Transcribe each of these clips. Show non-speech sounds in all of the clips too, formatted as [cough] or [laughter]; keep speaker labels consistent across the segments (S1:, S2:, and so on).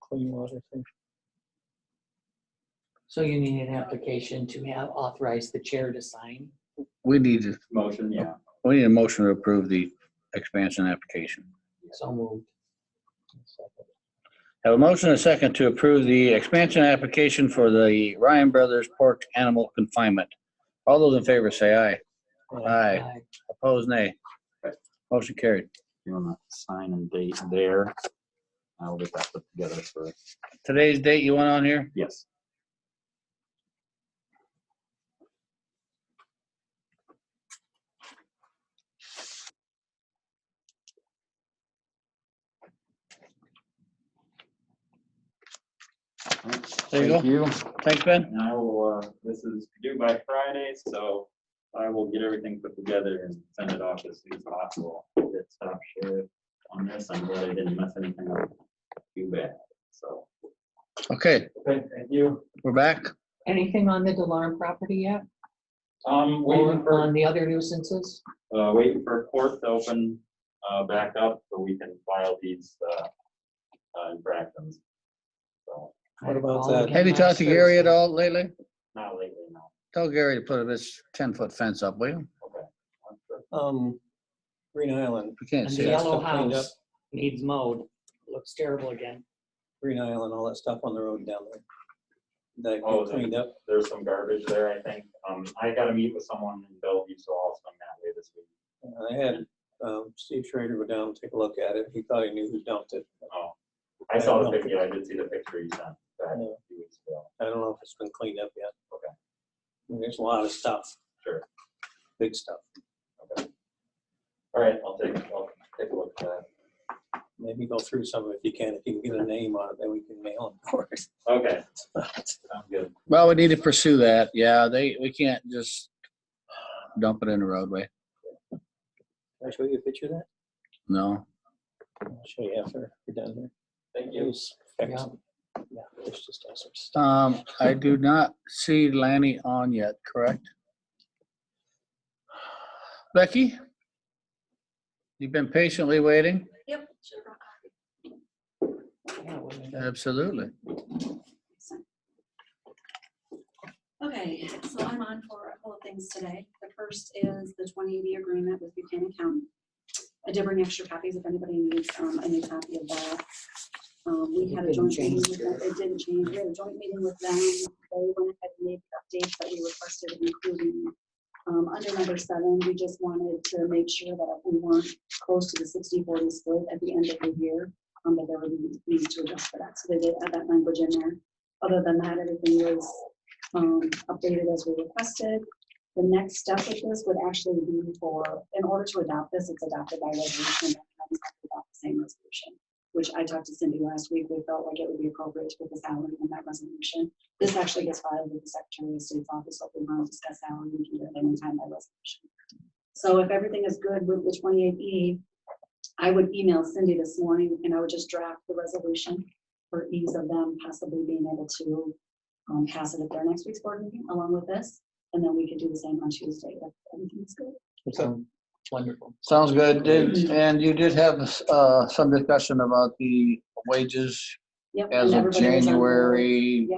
S1: clean water thing.
S2: So you need an application to have authorized the chair to sign.
S3: We need, to-
S4: Motion, yeah.
S3: we need a motion to approve the expansion application.
S2: So moved.
S3: Have a motion and a second to approve the expansion application for the Ryan Brothers Pork Animal Confinement. All those in favor say aye. Aye.
S2: Aye.
S3: Opposed, nay. Motion carried.
S4: You want to sign and date there? I'll get that put together for,
S3: Today's date you want on here?
S4: yes.
S3: There you go.
S4: Thank you.
S3: Thanks, Ben.
S4: And I will, uh, this is due by Friday, so I will get everything put together and send it off as soon as possible. Good stop share on this. I'm glad I didn't mess anything up too bad, so.
S3: Okay,
S4: Okay, thank you.
S3: we're back.
S2: Anything on the Delarm property yet?
S4: Um, waiting
S2: Or
S4: for,
S2: on the other nuisances?
S4: uh, waiting for court to open, uh, back up so we can file these, uh, uh, infractions. So,
S1: What about
S2: All
S1: that?
S2: again
S3: Have you
S2: last
S3: talked to Gary at
S2: Thursday.
S3: all lately?
S4: not lately, no.
S3: Tell Gary to put this ten-foot fence up, will you?
S4: Okay.
S1: Um, Green Island,
S3: We can't
S2: And
S3: see
S2: the
S3: it.
S1: that's
S2: yellow
S1: still cleaned
S2: house needs mowed. Looks terrible again.
S1: Green Island, all that stuff on the road down there. That
S4: Oh,
S1: got
S4: the-
S1: cleaned up.
S4: There's some garbage there, I think. Um, I gotta meet with someone in Bellevue, so I'll swing that way this week.
S1: I had um, Steve Schrader go down, and take a look at it. He thought he knew who dumped it.
S4: Oh, I saw the picture, yeah, I did see the picture you sent back a few weeks ago.
S1: I don't know if it's been cleaned up yet.
S4: Okay.
S1: I mean, There's a lot of stuff.
S4: Sure.
S1: Big stuff.
S4: All right, I'll take, I'll take a look at that.
S1: Maybe go through some of it if you can. If you can get a name on it, then we can mail it for [laughs] it.
S4: Okay, sounds good.
S3: Well, we need to pursue that. Yeah, they, we can't just dump it in the roadway.
S1: Can I show you a picture of that?
S3: No.
S1: I'll show you after we're done here.
S4: Thank
S1: It
S4: you.
S1: was excellent. Yeah, it's just awesome stuff.
S3: Um,
S5: [laughs]
S3: I do not see Lanny on yet, correct? Becky? You've been patiently waiting?
S5: Yep, sure.
S2: Yeah, what is that?
S3: Absolutely.
S5: Okay, so I'm on for a couple of things today. The first is the 2080 agreement with Buchanan County. I did bring extra copies if anybody needs um, a new copy of that. Um, We
S2: It
S5: had a
S2: didn't
S5: joint meeting,
S2: change,
S5: with them- it didn't change, we had a joint meeting with them. They went ahead and made the updates that we requested, including um, under number seven, we just wanted to make sure that we weren't close to the 60-40 split at the end of the year, um, that there would be need to adjust for that. So they did add that language in there. Other than that, everything was um, updated as we requested. The next step with this would actually be for, in order to adopt this, it's adopted by resolution. that comes up about the Same resolution, which I talked to Cindy last week. We felt like it would be appropriate to put the salary in that resolution. This actually gets filed with the Secretary of State's office, so if we want to discuss salary, we can do it anytime by resolution. So if everything is good with the twenty-eight E, I would email Cindy this morning and I would just draft the resolution for ease of them possibly being able to um, pass it at their next week's board meeting along with this. And then we could do the same on Tuesday if everything's good.
S2: Sounds Wonderful.
S3: Sounds good. Did- And you did have, uh, some discussion about the wages
S5: Yep. and
S3: as of
S5: everybody was on board.
S3: January.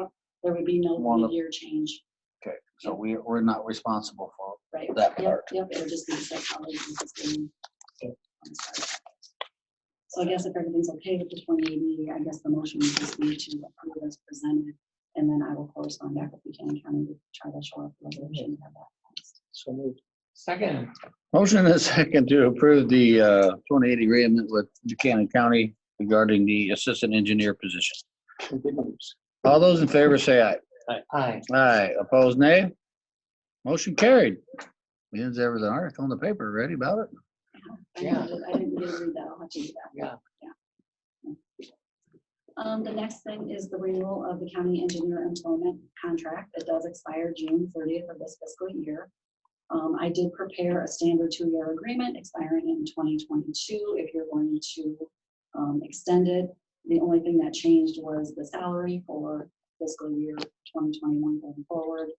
S5: There would be
S3: One
S5: no
S3: of-
S5: year change,
S3: Okay, so we, we're not responsible for
S5: right?
S3: that
S5: Yep,
S3: part.
S5: yep, it would just be the same colleague who's just being- I'm sorry. So I guess if everything's okay with the twenty eighty, I guess the motion would just be to approve as presented. And then I will correspond back with Buchanan County to try to show up the resolution and have that passed.
S1: So moved.
S2: Second,
S3: Motion and a [laughs] second to approve the uh, 2080 agreement with Buchanan County regarding the assistant engineer position.
S1: Good news.
S3: All those in favor say aye.
S2: aye.
S3: Aye, opposed nay? Motion carried. Means there was an article in the paper ready about it.
S5: I didn't get- I didn't get to read that. I'll have to do that.
S2: Yeah.
S5: Yeah. Um, the next thing is the renewal of the county engineer employment contract. It does expire June thirtieth of this fiscal year. Um, I did prepare a standard two-year agreement expiring in twenty twenty-two if you're going to, um, extend it. The only thing that changed was the salary for fiscal year twenty twenty-one going forward.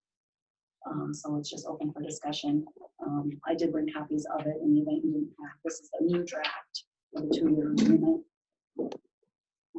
S5: Um, so it's just open for discussion. Um, I did bring copies of it in the event you didn't have. This is the new draft of the two-year agreement.